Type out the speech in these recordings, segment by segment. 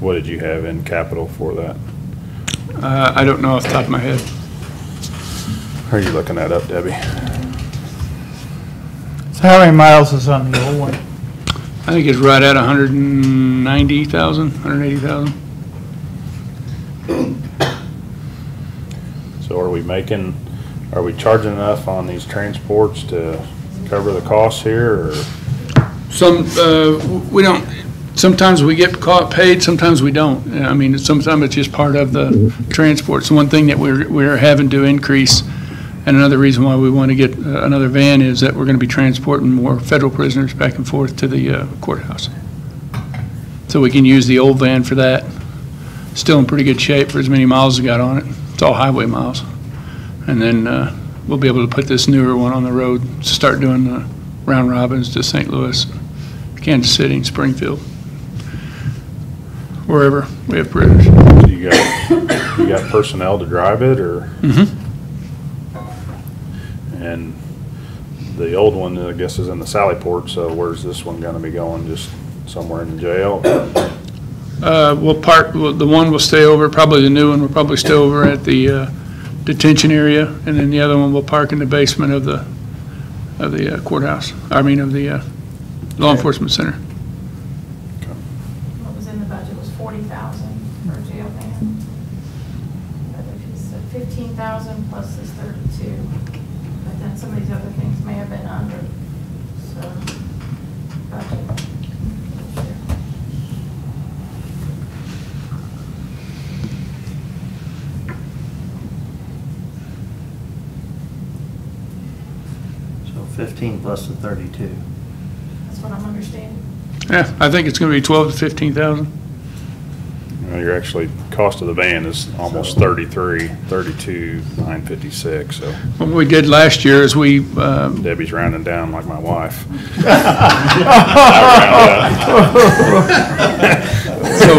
What did you have in capital for that? Uh, I don't know off the top of my head. Are you looking that up, Debbie? So how many miles is on the old one? I think it's right at 190,000, 180,000. So are we making, are we charging enough on these transports to cover the costs here, or Some, uh, we don't, sometimes we get caught paid, sometimes we don't. I mean, sometimes it's just part of the transport. It's one thing that we're, we're having to increase. And another reason why we want to get uh, another van is that we're going to be transporting more federal prisoners back and forth to the uh, courthouse. So we can use the old van for that. Still in pretty good shape for as many miles as we got on it. It's all highway miles. And then, uh, we'll be able to put this newer one on the road, start doing the round robins to St. Louis Kansas City and Springfield, wherever we have prisoners. do you got, you got personnel to drive it, or? And the old one, I guess, is in the Sallyport, so where's this one gonna be going? Just somewhere in the jail? Uh, We'll park, well, the one will stay over, probably the new one will probably stay over at the uh, detention area, and then the other one will park in the basement of the, of the uh, courthouse, I mean, of the uh, law enforcement center. What was in the budget was forty thousand for a jail van. But if you said fifteen thousand plus this thirty-two, but then some of these other things may have been under, so. budget. So 15 plus the 32. That's what I'm understanding. Yeah, I think it's going to be 12 to 15,000. You know, You're actually, cost of the van is almost thirty-three, thirty-two, nine fifty-six, so What we did last year is we, uh, Debbie's rounding down like my wife. so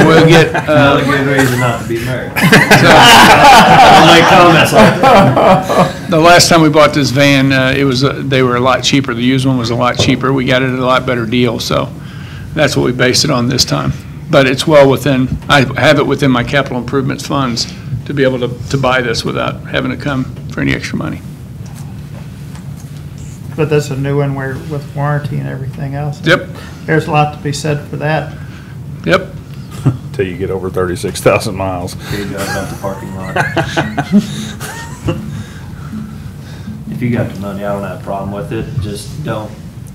we'll get, Not a uh, good reason not to be married. so- I'll make comments like The last time we bought this van, uh, it was, uh, they were a lot cheaper. The used one was a lot cheaper. We got it at a lot better deal, so that's what we based it on this time. But it's well within, I have it within my capital improvements funds to be able to, to buy this without having to come for any extra money. But that's a new one where, with warranty and everything else. Yep, There's a lot to be said for that. yep. Till you get over thirty-six thousand miles. Here you go, about the parking lot. If you got the money, I don't have a problem with it, just don't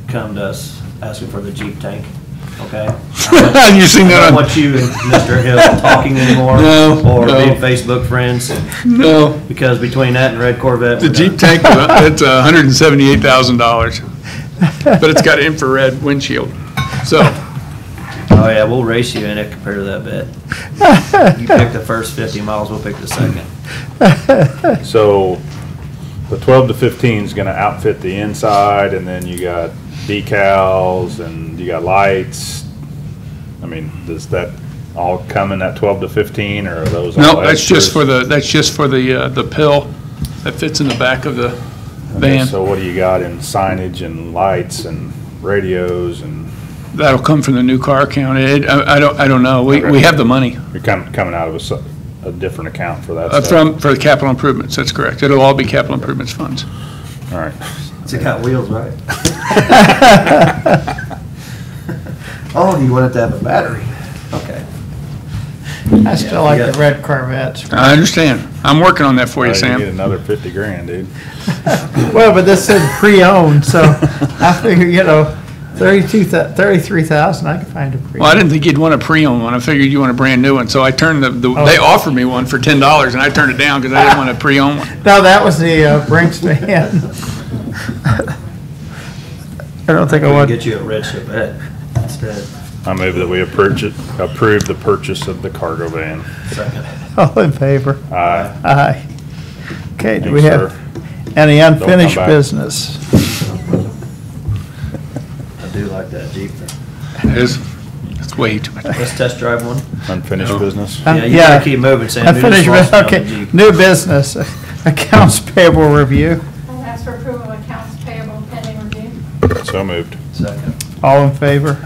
come to us asking for the Jeep tank, okay? You seen I that don't on, want you and Mr. Hill talking anymore. No, Or no. being Facebook friends, Oh, no, because between that and Red Corvette. the we're Jeep done. tank, that's hundred and seventy-eight thousand dollars. But it's got infrared windshield, so, Oh, yeah, we'll race you in it compared to that bit. You pick the first 50 miles, we'll pick the second. So the twelve to fifteen is gonna outfit the inside and then you got decals and you got lights. I mean, does that all come in that twelve to fifteen or are those? all no, that's extras? just for the, that's just for the, uh, the pill that fits in the back of the Okay, van. So what do you got in signage and lights and radios and That'll come from the new car account. It, I, I don't, I don't know. We, we have the money you're coming, coming out of a, s- a different account for that uh, stuff? from, for the capital improvements, that's correct. It'll all be capital improvements funds. All right. It's got wheels, right? Oh, you want it to have a battery? Okay. I still like the red Corvettes. I understand. I'm working on that for you, Uh, Get Sam. another fifty grand, dude. Well, but this said pre-owned, so I figure, you know, thirty-two, thirty-three thousand, I could find a pre. Well, I didn't think you'd want a pre-owned one. I figured you want a brand new one. So I turned the, the- they offered me one for ten dollars and I turned it down because I didn't want a pre-owned one. No, that was the uh, Brinks van. I don't think I We'll want, get you a red Chevette instead. I move that we approach it, approve the purchase of the cargo van. Second. all in favor? Aye. Aye. Okay, do we Thanks, have sir. any unfinished back. business? I do like that Jeep. though. That is, that's way too much. Let's test drive one. Unfinished business? Um, Yeah, you gotta keep moving, Sam. You just Unfinished, lost bus- me on the okay, Jeep. new business, accounts payable review, I'll ask for approval of accounts payable pending review. So moved. Second. all in favor?